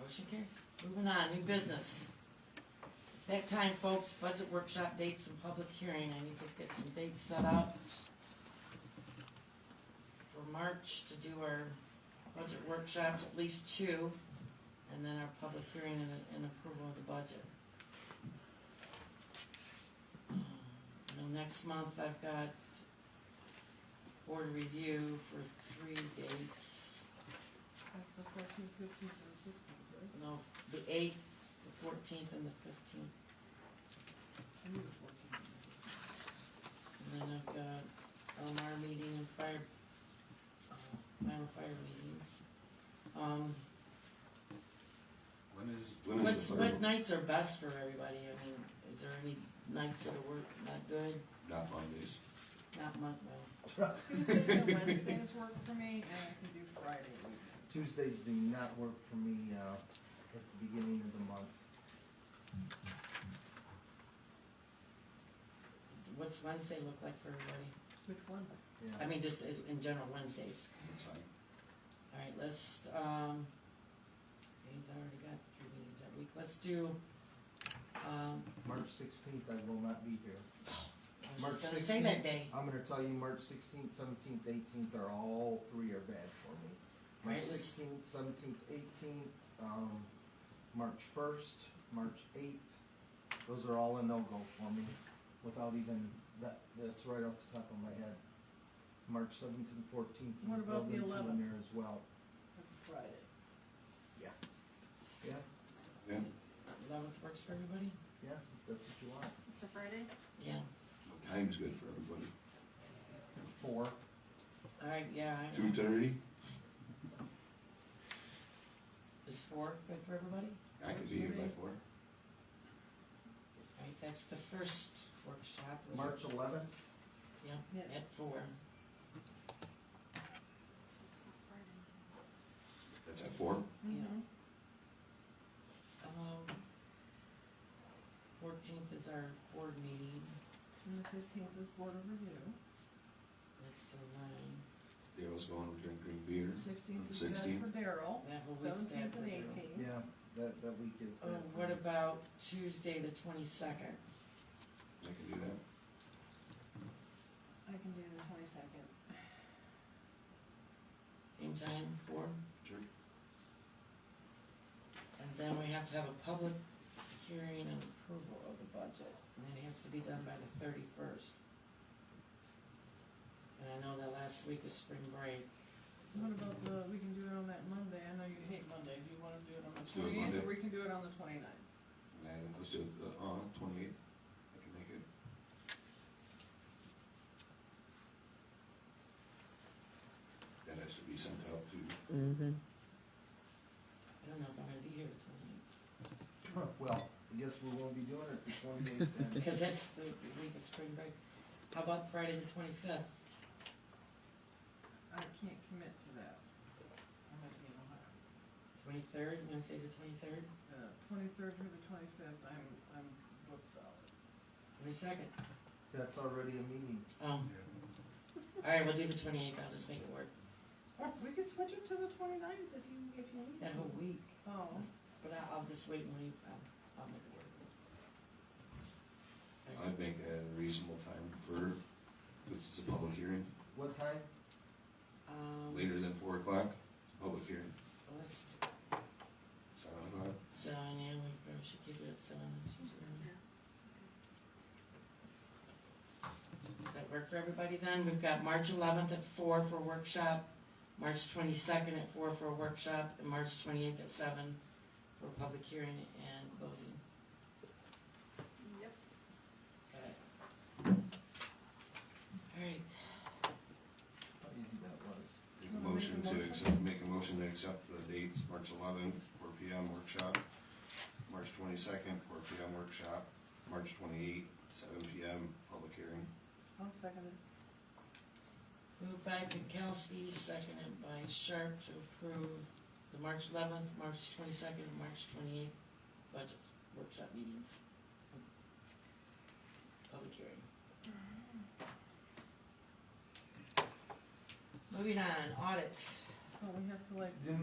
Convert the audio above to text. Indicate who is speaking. Speaker 1: Motion carries. Moving on, new business. It's that time, folks, budget workshop dates and public hearing. I need to get some dates set up for March to do our budget workshops, at least two, and then our public hearing and, and approval of the budget. I know Um, next month I've got board review for three dates.
Speaker 2: That's the fourteenth, fifteenth, and sixteenth, right?
Speaker 1: No, the eighth, the fourteenth, and the fifteenth,
Speaker 2: I knew the fourteenth.
Speaker 1: and then I've got LMR meeting and fire, uh, fire fire meetings. Um,
Speaker 3: When is, when is
Speaker 1: what's,
Speaker 3: the
Speaker 1: what
Speaker 3: third?
Speaker 1: nights are best for everybody, I mean, is there any nights that are work, not good,
Speaker 3: Not Mondays.
Speaker 1: not month, well,
Speaker 2: Tuesdays and Wednesdays work for me, and I can do Friday evening.
Speaker 4: Tuesdays do not work for me, uh, at the beginning of the month.
Speaker 1: what's Wednesday look like for everybody?
Speaker 2: Which one?
Speaker 1: I
Speaker 4: Yeah.
Speaker 1: mean, just as, in general, Wednesdays,
Speaker 3: What time?
Speaker 1: alright, let's, um, meetings, I already got three meetings that week, let's do, um,
Speaker 4: March sixteenth, I will not be here.
Speaker 1: I was
Speaker 4: March
Speaker 1: just gonna say that
Speaker 4: 16th?
Speaker 1: day.
Speaker 4: I'm gonna tell you, March sixteenth, seventeenth, eighteenth are all three are bad for me.
Speaker 1: Right,
Speaker 4: March
Speaker 1: let's-
Speaker 4: sixteenth, seventeenth, eighteenth, um, March first, March eighth, those are all a no-go for me, without even, that, that's right off the top of my head. March seventh and fourteenth,
Speaker 2: What
Speaker 4: you
Speaker 2: about the
Speaker 4: throw them two in
Speaker 2: 11th?
Speaker 4: there as well,
Speaker 2: That's a Friday.
Speaker 4: yeah,
Speaker 3: Yeah,
Speaker 1: Eleventh works for everybody?
Speaker 4: yeah, that's what you want,
Speaker 2: It's a Friday?
Speaker 1: Yeah,
Speaker 3: what time's good for everybody?
Speaker 4: four,
Speaker 1: alright, yeah, I
Speaker 3: Two thirty?
Speaker 1: is four good for everybody?
Speaker 3: I could be here by four.
Speaker 1: Right, that's the first workshop. was-
Speaker 4: March eleventh,
Speaker 1: Yeah,
Speaker 2: Yeah.
Speaker 1: at four,
Speaker 3: That's at four?
Speaker 2: Mhm.
Speaker 1: um, fourteenth is our board meeting,
Speaker 2: And the fifteenth is Board of Review.
Speaker 1: that's till nine,
Speaker 3: Daryl's going to drink green beer.
Speaker 2: Sixteenth is bad
Speaker 3: 16th.
Speaker 2: for Daryl.
Speaker 1: that whole week's bad
Speaker 2: Seventeenth
Speaker 1: for
Speaker 2: and
Speaker 1: you.
Speaker 2: eighteenth.
Speaker 4: yeah, that, that week is
Speaker 1: Oh,
Speaker 4: bad for
Speaker 1: what
Speaker 4: me.
Speaker 1: about Tuesday, the twenty-second,
Speaker 3: I can do that.
Speaker 2: I can do the twenty-second.
Speaker 1: same time, four?
Speaker 3: Sure.
Speaker 1: And then we have to have a public hearing and approval of the budget, and it has to be done by the thirty-first. And I know that last week is spring break.
Speaker 2: What about the, we can do it on that Monday, I know you hate Monday, do you wanna do it on the
Speaker 3: Let's do it
Speaker 2: twentieth,
Speaker 3: Monday.
Speaker 2: or we can do it on the twenty-ninth?
Speaker 3: And let's do it, uh, uh, twenty-eight. I can make it. That has to be sent out to,
Speaker 1: Mm-hmm. I don't know if I'm gonna be here the twenty-eighth,
Speaker 4: Huh, Well, I guess we won't be doing it for twenty-eight then.
Speaker 1: because that's the week of spring break. How about Friday the twenty-fifth?
Speaker 2: I can't commit to that. I might be in Ohio.
Speaker 1: Twenty-third, Wednesday the twenty-third,
Speaker 2: Uh, twenty-third through the twenty-fifth, I'm, I'm booked solid.
Speaker 1: twenty-second?
Speaker 4: That's already a meeting.
Speaker 1: Oh. Alright, we'll do the twenty-eighth, I'll just make it work.
Speaker 2: Or we could switch it to the twenty-ninth if you, if you need.
Speaker 1: That whole week,
Speaker 2: Oh,
Speaker 1: but I- I'll just wait and leave, I'll, I'll make it work.
Speaker 3: I'd make that a reasonable time for, this is a public hearing,
Speaker 4: What time?
Speaker 1: Um,
Speaker 3: later than four o'clock, it's a public hearing.
Speaker 1: let's,
Speaker 3: Seven o'clock,
Speaker 1: so, yeah, we probably should keep it at seven, it's usually early. Does that work for everybody then? We've got March eleventh at four for workshop, March twenty-second at four for a workshop, and March twenty-eighth at seven for a public hearing and closing.
Speaker 2: yep.
Speaker 1: Got it? Alright,
Speaker 4: How easy that was.
Speaker 3: make a motion to accept, make a motion to accept the dates, March eleventh, four P M workshop, March twenty-second, four P M workshop, March twenty-eighth, seven P M, public hearing.
Speaker 2: I'll second it.
Speaker 1: moved by Pinkowski, seconded by Sharp to approve the March eleventh, March twenty-second, and March twenty-eighth budget workshop meetings. Public hearing. Mm-hmm. Moving on, audit.
Speaker 2: Oh, we have to like
Speaker 4: Didn't